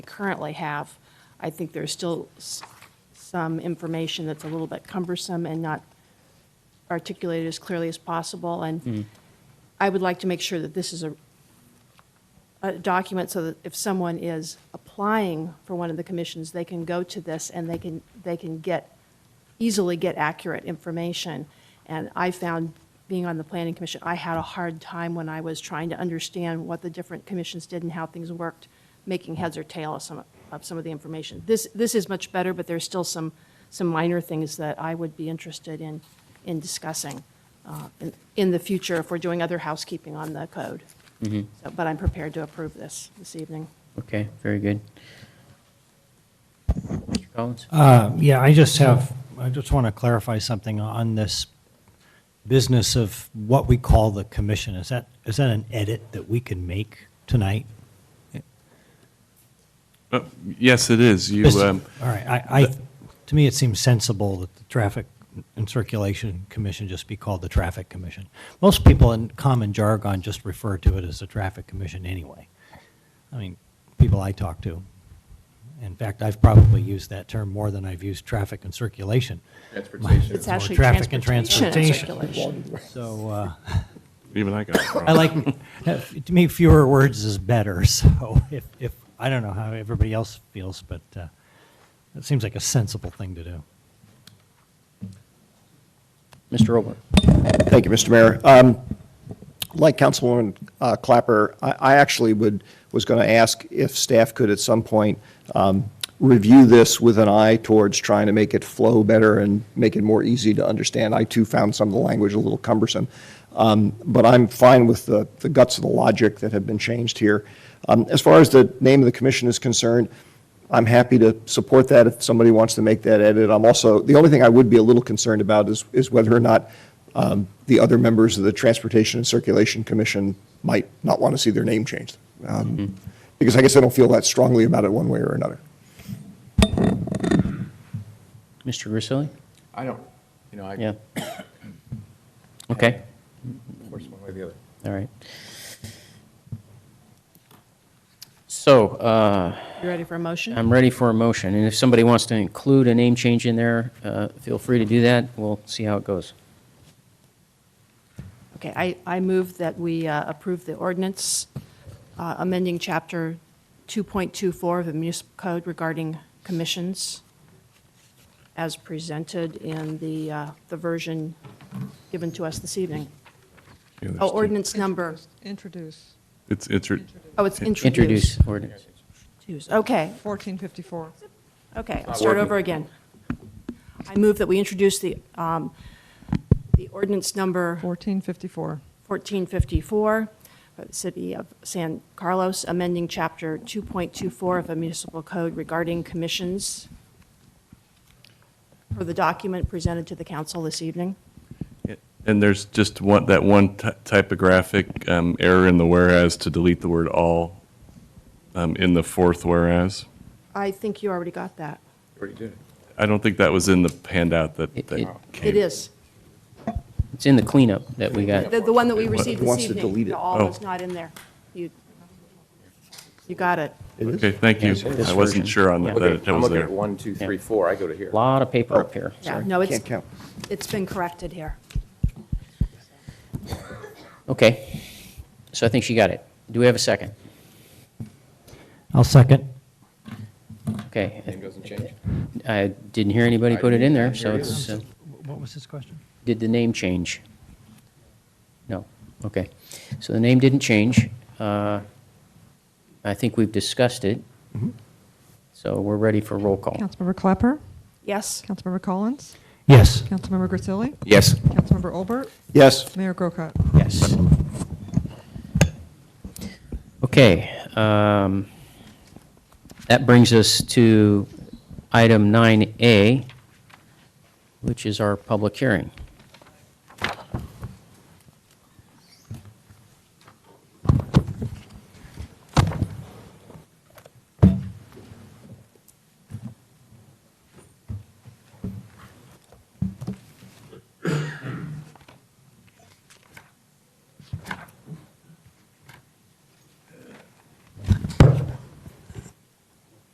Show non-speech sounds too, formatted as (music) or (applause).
currently have. I think there's still s- some information that's a little bit cumbersome and not articulated as clearly as possible, and I would like to make sure that this is a, a document so that if someone is applying for one of the commissions, they can go to this and they can, they can get, easily get accurate information. And I found, being on the planning commission, I had a hard time when I was trying to understand what the different commissions did and how things worked, making heads or tail of some, of some of the information. This, this is much better, but there's still some, some minor things that I would be interested in, in discussing uh, in- in the future if we're doing other housekeeping on the code. So, But I'm prepared to approve this this evening. Okay, very good. Mr. Collins? Uh, Yeah, I just have, I just want to clarify something on this business of what we call the commission. Is that, is that an edit that we can make tonight? Yes, it is. You, Just- um, All right, I, I, to me, it seems sensible that the Traffic and Circulation Commission just be called the Traffic Commission. Most people in common jargon just refer to it as the Traffic Commission anyway. I mean, people I talk to. In fact, I've probably used that term more than I've used traffic and circulation. Transportation. It's actually traffic and transportation and circulation. So, uh, even I got it wrong. I like, to me, fewer words is better, (laughs) so if, if, I don't know how everybody else feels, but uh, it seems like a sensible thing to do. Mr. Olber? Thank you, Mr. Mayor. Um, Like Councilwoman uh, Clapper, I I actually would, was going to ask if staff could at some point um, review this with an eye towards trying to make it flow better and make it more easy to understand. I too found some of the language a little cumbersome. Um, But I'm fine with the the guts of the logic that have been changed here. Um, As far as the name of the commission is concerned, I'm happy to support that if somebody wants to make that edit. I'm also, the only thing I would be a little concerned about is, is whether or not um, the other members of the Transportation and Circulation Commission might not want to see their name changed. Um, Because I guess I don't feel that strongly about it one way or another. Mr. Grisilli? I don't, you know, I, (coughs) Yeah. of Okay, course, one way or the other. all right. So uh, You ready for a motion? I'm ready for a motion, and if somebody wants to include a name change in there, uh, feel free to do that. We'll see how it goes. Okay, I, I move that we uh, approve the ordinance uh, amending Chapter 2.24 of the Municipal Code regarding commissions as presented in the, uh, the version given to us this evening. Oh, ordinance number, Introduce, It's, it's, re- oh, it's introduced. Introduce ordinance. Introduce. Okay, 1454. okay, I'll start over again. I move that we introduce the, um, the ordinance number 1454. 1454, for the City of San Carlos, amending Chapter 2.24 of the Municipal Code regarding commissions for the document presented to the council this evening. and there's just one, that one ty- typographic um, error in the whereas to delete the word all um, in the fourth whereas. I think you already got that. Already did it. I don't think that was in the handout that, It- it- that came. It is. It's in the cleanup that we got. The, the one that we received this evening. wants to delete it. The all Oh. was not in there. You, you got it. Okay, thank you. Yeah, it's this I version. wasn't sure on that, Okay, that it I'm was looking there. at one, two, three, four, I go to here. Lot of paper up here, Yeah, sorry. no, it's, Can't count. it's been corrected here. Okay, so I think she got it. Do we have a second? I'll second. Okay. Name doesn't change. I didn't hear anybody put it in there, so it's, uh, What was his question? did the name change? No, okay. So the name didn't change. Uh, I think we've discussed it. So we're ready for roll call. Councilmember Clapper, Yes? Councilmember Collins, Yes. Councilmember Grisilli, Yes. Councilmember Olbert, Yes? Mayor Grocott. Yes. Okay. um, That brings us to item 9A, which is our public hearing.